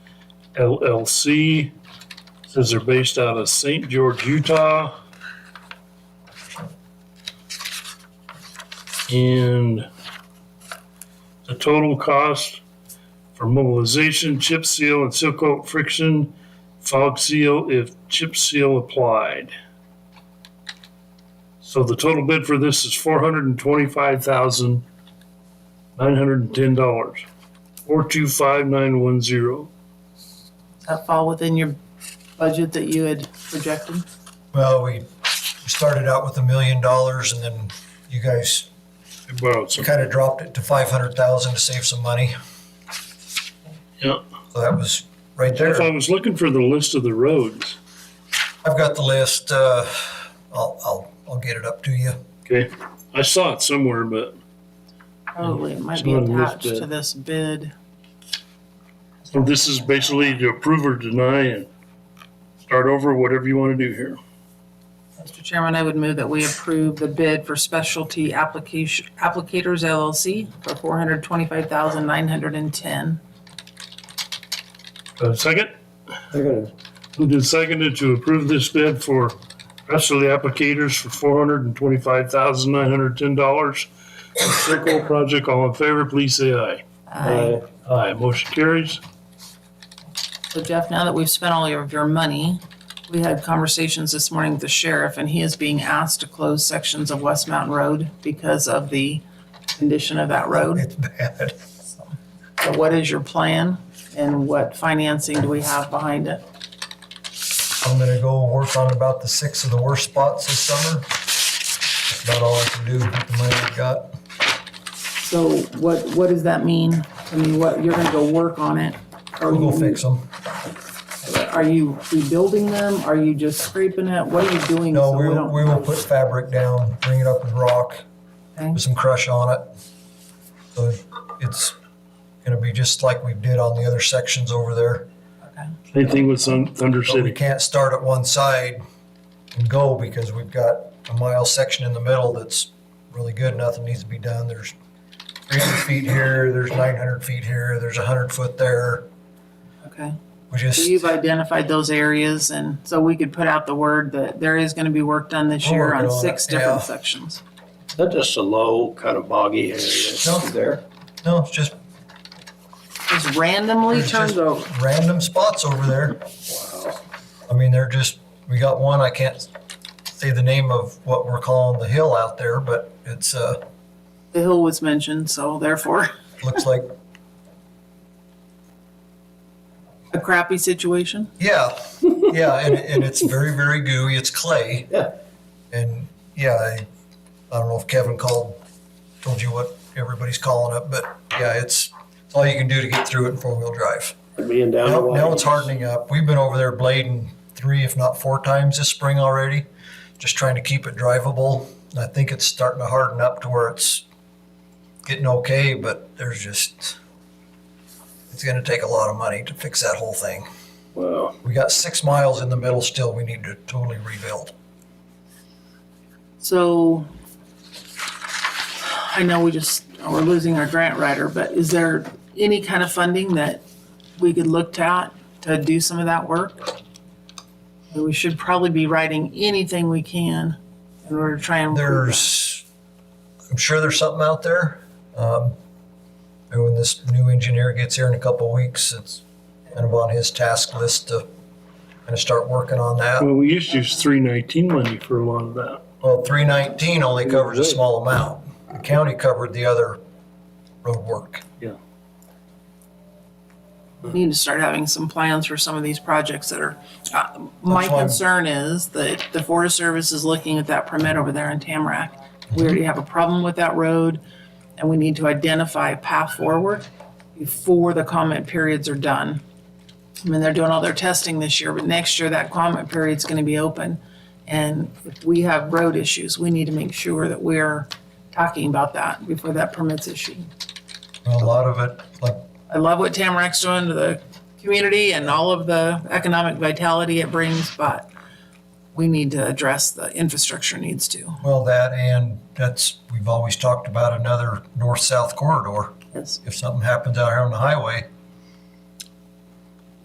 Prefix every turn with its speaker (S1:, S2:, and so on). S1: LLC. Says they're based out of St. George, Utah. And the total cost for mobilization, chip seal, and seal coat friction, fog seal if chip seal applied. So the total bid for this is four hundred and twenty-five thousand nine hundred and ten dollars. Four two five nine one zero.
S2: Does that fall within your budget that you had projected?
S3: Well, we we started out with a million dollars and then you guys
S1: I borrowed some.
S3: kind of dropped it to five hundred thousand to save some money.
S1: Yeah.
S3: So that was right
S1: If I
S3: there.
S1: was looking for the list of the roads,
S3: I've got the list. Uh, I'll, I'll, I'll get it up to you.
S1: okay, I saw it somewhere, but
S2: Probably, it might be
S1: Someone
S2: attached
S1: missed it.
S2: to this bid.
S1: so this is basically to approve or deny and start over, whatever you want to do here.
S2: Mr. Chairman, I would move that we approve the bid for Specialty Application, Applicators LLC for four hundred twenty-five thousand nine hundred and ten.
S1: Uh, Second,
S4: Second.
S1: moved and seconded to approve this bid for rest of the applicators for four hundred and twenty-five thousand nine hundred ten dollars. Circle project, all in favor, please say aye.
S4: Aye.
S1: Aye, motion carries.
S2: So Jeff, now that we've spent all of your money, we had conversations this morning with the sheriff and he is being asked to close sections of West Mountain Road because of the condition of that road.
S3: It's bad.
S2: So what is your plan and what financing do we have behind it?
S3: I'm gonna go work on about the six of the worst spots this summer. That's about all I can do with the money I've got.
S2: So what, what does that mean? I mean, what, you're gonna go work on it? Or
S3: We'll go fix them.
S2: Are you rebuilding them? Are you just scraping it? What are you doing?
S3: No,
S2: so
S3: we,
S2: don't-
S3: we will put fabric down, bring it up with rock,
S2: Okay.
S3: with some crush on it. So it's gonna be just like we did on the other sections over there.
S1: Anything with Thun- Thunder
S3: But we
S1: City.
S3: can't start at one side and go because we've got a mile section in the middle that's really good, nothing needs to be done. There's three hundred feet here, there's nine hundred feet here, there's a hundred foot there.
S2: Okay.
S3: We
S2: So
S3: just,
S2: you've identified those areas and so we could put out the word that there is gonna be work done this
S3: We're
S2: year
S3: working
S2: on
S3: on it,
S2: six different
S3: yeah.
S2: sections.
S4: Is that just a low, kind of boggy area
S3: No.
S4: there?
S3: no, it's just
S2: Just randomly
S3: It's
S2: turns
S3: just-
S2: over.
S3: random spots over there. I mean, they're just, we got one, I can't say the name of what we're calling the hill out there, but it's, uh,
S2: The hill was mentioned, so therefore
S3: looks like,
S2: a crappy situation.
S3: yeah, yeah, and, and it's very, very gooey, it's clay.
S4: Yeah.
S3: And, yeah, I, I don't know if Kevin called, told you what everybody's calling it, but, yeah, it's, it's all you can do to get through it in four-wheel drive.
S4: Being down. the
S3: Now,
S4: way.
S3: now it's hardening up. We've been over there blading three, if not four times this spring already, just trying to keep it drivable. And I think it's starting to harden up to where it's getting okay, but there's just, it's gonna take a lot of money to fix that whole thing.
S4: Wow.
S3: We got six miles in the middle still. We need to totally rebuild.
S2: So I know we just, we're losing our grant writer, but is there any kind of funding that we could look at to do some of that work? And We should probably be writing anything we can in order to try and. improve that.
S3: There's, I'm sure there's something out there. Um, and when this new engineer gets here in a couple of weeks, it's kind of on his task list to kind of start working on that.
S1: Well, we used to use three nineteen money for a lot of that.
S3: Well, three nineteen only covers a small amount. The county covered the other road work.
S2: We Need to start having some plans for some of these projects that are, uh, my
S3: That's why-
S2: concern is that the Forest Service is looking at that permit over there in Tamarack. We already have a problem with that road and we need to identify a path forward before the comment periods are done. I mean, they're doing all their testing this year, but next year that comment period's gonna be open. And if we have road issues, we need to make sure that we're talking about that before that permit's issued.
S3: A lot of it, like,
S2: I love what Tamarack's doing to the community and all of the economic vitality it brings, but we need to address the infrastructure needs too.
S3: well, that and that's, we've always talked about another north-south corridor.
S2: Yes.
S3: If something happens out here on the highway,